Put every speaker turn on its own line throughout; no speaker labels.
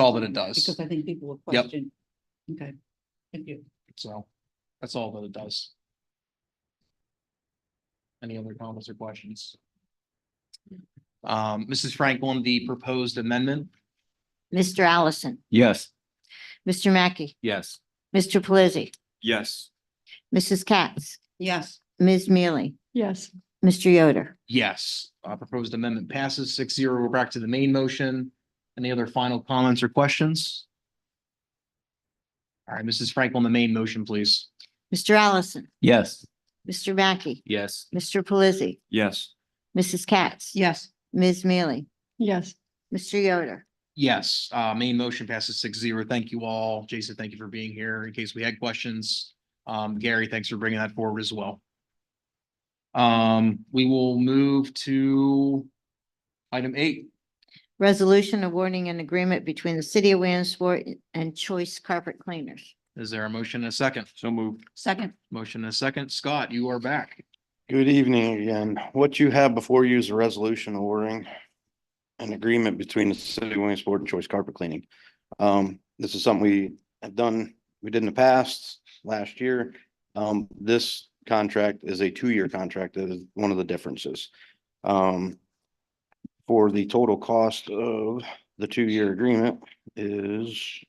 all that it does.
Because I think people will
Yep.
question. Okay, thank you.
So that's all that it does. Any other comments or questions? Um, Mrs. Franklin, the proposed amendment?
Mr. Allison,
Yes.
Mr. Mackey,
Yes.
Mr. Pelisi,
Yes.
Mrs. Katz,
Yes.
Ms. Mealy,
Yes.
Mr. Yoder.
Yes, uh, proposed amendment passes six zero. We're back to the main motion. Any other final comments or questions? All right, Mrs. Franklin, the main motion, please.
Mr. Allison,
Yes.
Mr. Mackey,
Yes.
Mr. Pelisi,
Yes.
Mrs. Katz,
Yes.
Ms. Mealy,
Yes.
Mr. Yoder.
Yes, uh, main motion passes six zero. Thank you all. Jason, thank you for being here. In case we had questions, um, Gary, thanks for bringing that forward as well. Um, we will move to item eight.
Resolution awarding an agreement between the City of Williamsport and Choice Carpet Cleaners.
Is there a motion and a second?
So moved.
Second.
Motion and a second. Scott, you are back.
Good evening again. What you have before you is a resolution ordering an agreement between the city of Williamsport and Choice Carpet Cleaning. Um, this is something we have done, we did in the past, last year. Um, this contract is a two-year contract. That is one of the differences. Um, for the total cost of the two-year agreement is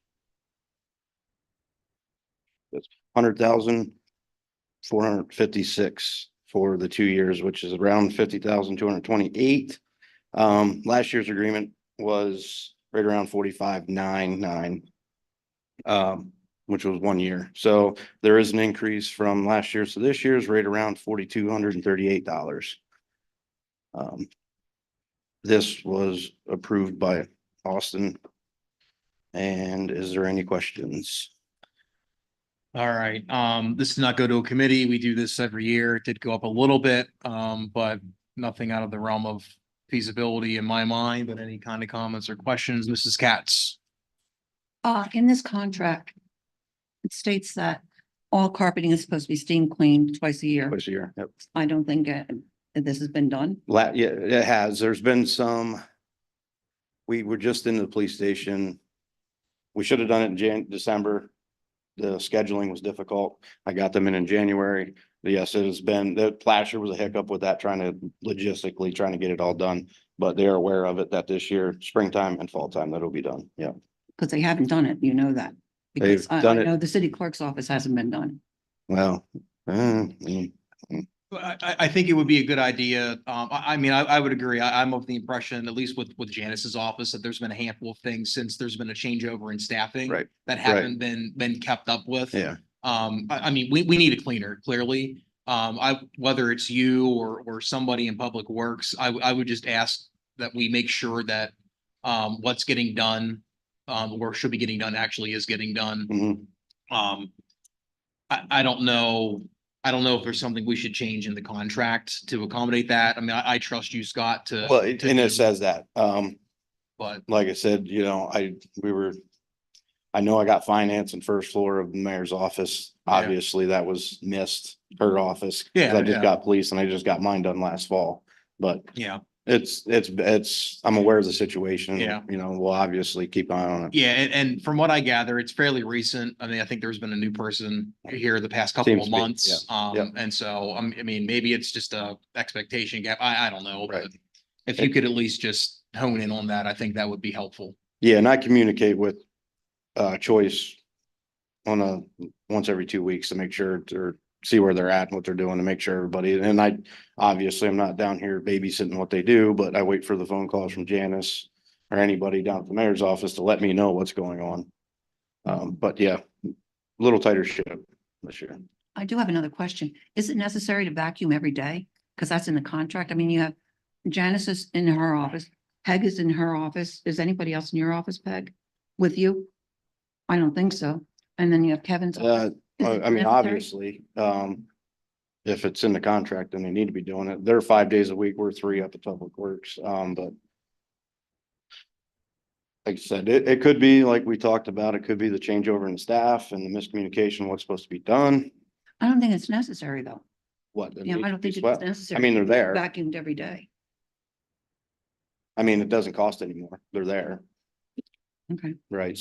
that's hundred thousand four hundred fifty-six for the two years, which is around fifty thousand two hundred twenty-eight. Um, last year's agreement was right around forty-five nine nine. Um, which was one year. So there is an increase from last year's to this year's right around forty-two hundred and thirty-eight dollars. Um, this was approved by Austin. And is there any questions?
All right, um, this does not go to a committee. We do this every year. It did go up a little bit, um, but nothing out of the realm of feasibility in my mind, but any kind of comments or questions, Mrs. Katz?
Uh, in this contract, it states that all carpeting is supposed to be steam cleaned twice a year.
Twice a year. Yep.
I don't think uh, this has been done.
La, yeah, it has. There's been some. We were just in the police station. We should have done it in Jan, December. The scheduling was difficult. I got them in in January. But Yes, it has been, the Plasher was a hiccup with that, trying to logistically, trying to get it all done. But they are aware of it that this year, springtime and fall time, that'll be done. Yeah.
Because they haven't done it, you know that. Because
They've
I, I
done it.
know the city clerk's office hasn't been done.
Well, uh, mm,
Well, I, I, I think it would be a good idea. Um, I, I mean, I, I would agree. I, I'm of the impression, at least with, with Janice's office, that there's been a handful of things since there's been a changeover in staffing.
Right,
That
right.
haven't been, been kept up with.
yeah,
Um, I, I mean, we, we need a cleaner, clearly. Um, I, whether it's you or, or somebody in Public Works, I, w- I would just ask that we make sure that, um, what's getting done, um, or should be getting done actually is getting done.
mhm.
Um, I, I don't know, I don't know if there's something we should change in the contract to accommodate that. I mean, I, I trust you, Scott, to.
Well, it-
to
and
do-
it says that, um.
But,
like I said, you know, I, we were. I know I got finance and first floor of the mayor's office.
Yeah.
Obviously, that was missed, her office. 'cause
Yeah,
I
yeah.
just got police and I just got mine done last fall, but
yeah,
it's, it's, it's, I'm aware of the situation.
Yeah.
You know, we'll obviously keep an eye on it.
yeah, and, and from what I gather, it's fairly recent. I mean, I think there's been a new person here the past couple
Seems
of
to be,
months.
yeah.
Um, and so, um, I mean, maybe it's just a expectation gap. I, I don't know.
Right.
but If you could at least just hone in on that, I think that would be helpful.
Yeah, and I communicate with, uh, Choice on a, once every two weeks to make sure, or see where they're at, and what they're doing to make sure everybody, and I, obviously, I'm not down here babysitting what they do, but I wait for the phone calls from Janice or anybody down at the mayor's office to let me know what's going on. Um, but yeah, a little tighter ship this year.
I do have another question. Is it necessary to vacuum every day? Because that's in the contract. I mean, you have Janice is in her office, Peg is in her office. Is anybody else in your office, Peg? With you? I don't think so. And then you have Kevin's. office.
Uh,
Is
I
it
I mean,
necessary?
obviously, um, if it's in the contract, then they need to be doing it. They're five days a week, we're three up at Public Works, um, but like I said, it, it could be, like we talked about, it could be the changeover in staff and the miscommunication, what's supposed to be done,
I don't think it's necessary, though.
what. that
Yeah,
needs
I
to
don't
be
think it's
swept.
necessary.
I mean, they're there.
Vacuumed every day.
I mean, it doesn't cost anymore. They're there.
Okay.
right?